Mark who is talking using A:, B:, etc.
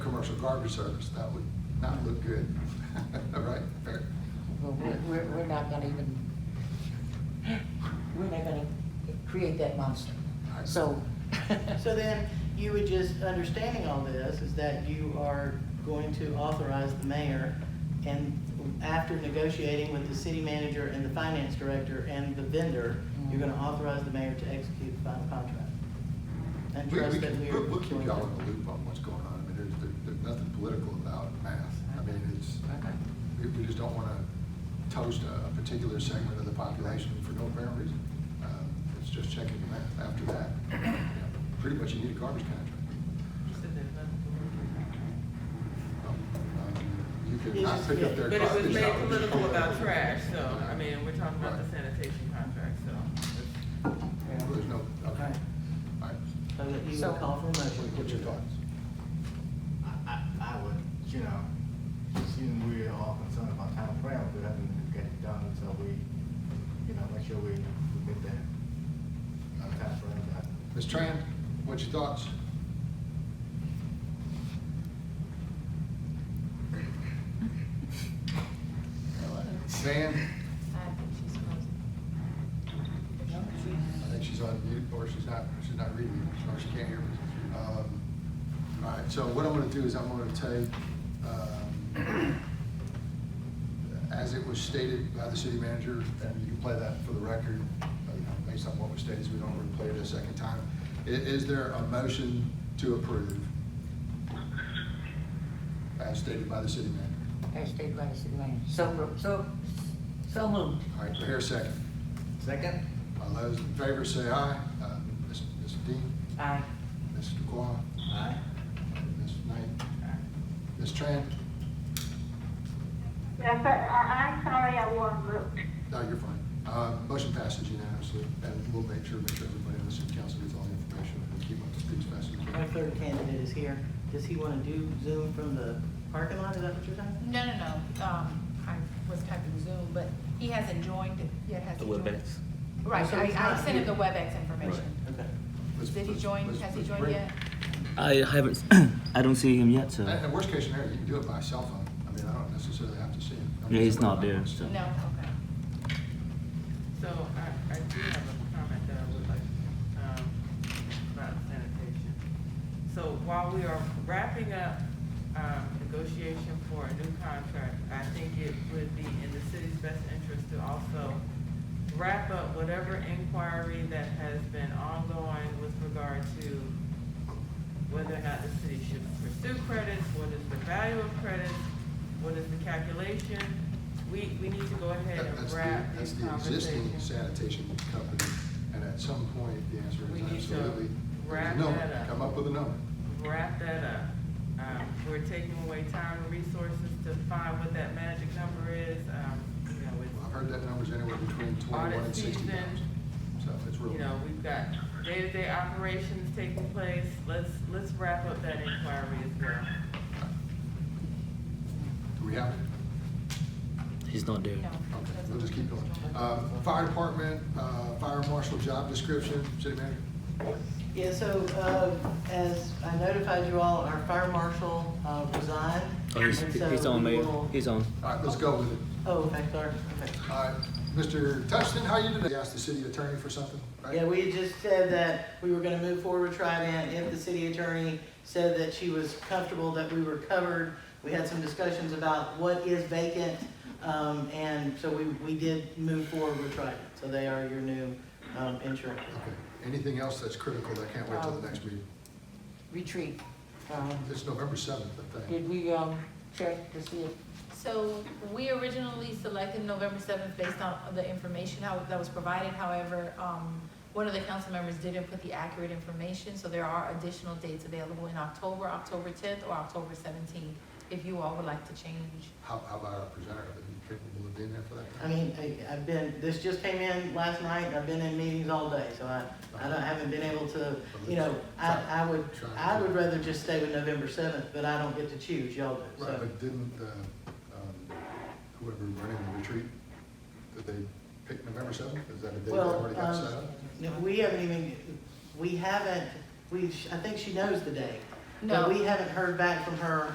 A: garbage service, that would not look good, right?
B: Well, we're, we're, we're not gonna even, we're not gonna create that monster, so.
C: So then, you would just, understanding all this, is that you are going to authorize the mayor, and after negotiating with the city manager and the finance director and the vendor, you're gonna
A: Mm-hmm.
C: authorize the mayor to execute the final contract. And
A: We, we
C: trust that
A: can,
C: we are.
A: we'll we'll keep
C: doing
A: y'all in
C: that.
A: the loop on what's going on, I mean, there's, there- there's nothing political about math, I mean, it's,
C: Okay.
A: we, we just don't wanna toast a, a particular segment of the population for no apparent reason. Um, It's just checking the math, after that, you know, pretty much you need a garbage contract. Um, You could
C: It's
A: not
C: just-
A: pick up their
D: But
A: garbage.
D: it was
A: out
D: made
A: of the
D: political
A: corner.
D: about trash, so, I
A: Right.
D: mean, we're talking about the
A: Right.
D: sanitation contract, so.
A: Well, There's no, okay,
C: Okay.
A: all right,
C: So that you
B: So-
C: would call for a
A: What-
C: motion.
A: what's your thoughts?
E: I, I, I would, you know, seeing we're all concerned about time frame, we haven't get it done, so we, you know, make sure we, we get that, uh, time frame done.
A: Ms. Tran, what's your thoughts? Van, I think she's on mute, or she's not, she's not reading, or she can't hear me. Um, All right, so what I'm gonna do is I'm gonna take, um, as it was stated by the city manager, and you can play that for the record, uh, you know, based on what was stated, so we don't replay it a second time. I- Is there a motion to approve? As stated by the city manager.
B: As stated by the city manager, so, ro- so, so moved.
A: All right, do I hear a second?
E: Second?
A: All those in favor say aye. Uh, Ms. Ms. Dean,
B: Aye.
A: Mr. Dubois,
E: Aye.
A: Ms. Knight, Ms. Tran.
F: Yes, sir, I, I'm sorry, I wasn't looked.
A: No, you're fine. Uh, Motion passes unanimously, and we'll make sure, make sure everybody on the city council gets all the information and keep up to speed as fast as we
C: Our
A: can.
C: third candidate is here. Does he wanna do Zoom from the parking lot? Is that what you're saying?
G: No, no, no, um, I was typing Zoom, but he hasn't joined, yet hasn't.
H: The
G: joined.
H: WebEx.
G: Right,
C: So he's
G: I, I
C: not
G: sent him
C: here.
G: the WebEx information.
C: Okay.
A: Let's-
G: Did he
A: let's-
G: join,
A: let's-
G: has he
A: let's
G: joined
A: bring-
G: yet?
H: I haven't. I don't see him yet, so.
A: And and worst case scenario, you can do it by cell phone. I mean, I don't necessarily have to see him. I mean,
H: Yeah, he's
A: somebody
H: not there,
A: might-
H: so.
G: No, okay.
D: So I, I do have a comment that I would like, um, about sanitation. So while we are wrapping up, um, negotiation for a new contract, I think it would be in the city's best interest to also wrap up whatever inquiry that has been ongoing with regard to whether or not the city should pursue credits, what is the value of credits, what is the calculation? We, we need to go ahead
A: That- That's
D: and
A: the,
D: wrap
A: that's
D: these
A: the existing
D: conversations.
A: sanitation company, and at some point, the answer
D: We
A: is
D: need to
A: absolutely,
D: wrap
A: there's no,
D: that up.
A: come up with a number.
D: Wrap that up. Um, we're taking away time and resources to find what that magic number is, um, you know,
A: Well, I've
D: it's,
A: heard that number's anywhere between twenty-one and
D: Audit
A: sixty
D: season.
A: thousand, so it's real.
D: you know, we've got day-to-day operations taking place. Let's, let's wrap up that inquiry as well.
A: Do we have it?
H: He's not there.
G: No.
A: Okay,
G: that's
A: we'll just keep
G: not-
A: going. Uh, Fire department, uh, fire marshal job description, city manager?
C: Yeah, so, uh, as I notified you all, our fire marshal, uh, resigned.
H: Oh, he's,
C: and so
H: he's on,
C: we
H: Mayor.
C: will-
H: He's on.
A: All right, let's go with it.
C: Oh, okay, sorry, okay.
A: All right, Mr. Touchton, how you today? Asked the city attorney for something, right?
C: Yeah, we had just said that we were gonna move forward with Trident if the city attorney said that she was comfortable that we were covered. We had some discussions about what is vacant, um, and so we, we did move forward with Trident. So they are your new, um, insurance.
A: Okay. Anything else that's critical that can't wait till the next meeting?
B: Retreat, um,
A: It's November seventh, I think.
B: did we, um, check to see if,
G: So we originally selected November seventh based on the information how, that was provided. However, um, one of the council members didn't put the accurate information, so there are additional dates available in October, October tenth, or October seventeenth, if you all would like to change.
A: How, how about our presenter? Are you capable of being there for that?
C: I mean, I, I've been, this just came in last night, and I've been in meetings all day, so I, I don't, I haven't been able to, you know, I, I would, I would rather just stay with November seventh, but I don't get to choose, y'all do,
A: Right,
C: so.
A: but didn't, uh, um, whoever running the retreat, did they pick November seventh? Is that a date that
C: Well,
A: already got
C: um,
A: set up?
C: No, we haven't even, we haven't, we, I think she knows the day.
G: No.
C: But we haven't heard back from her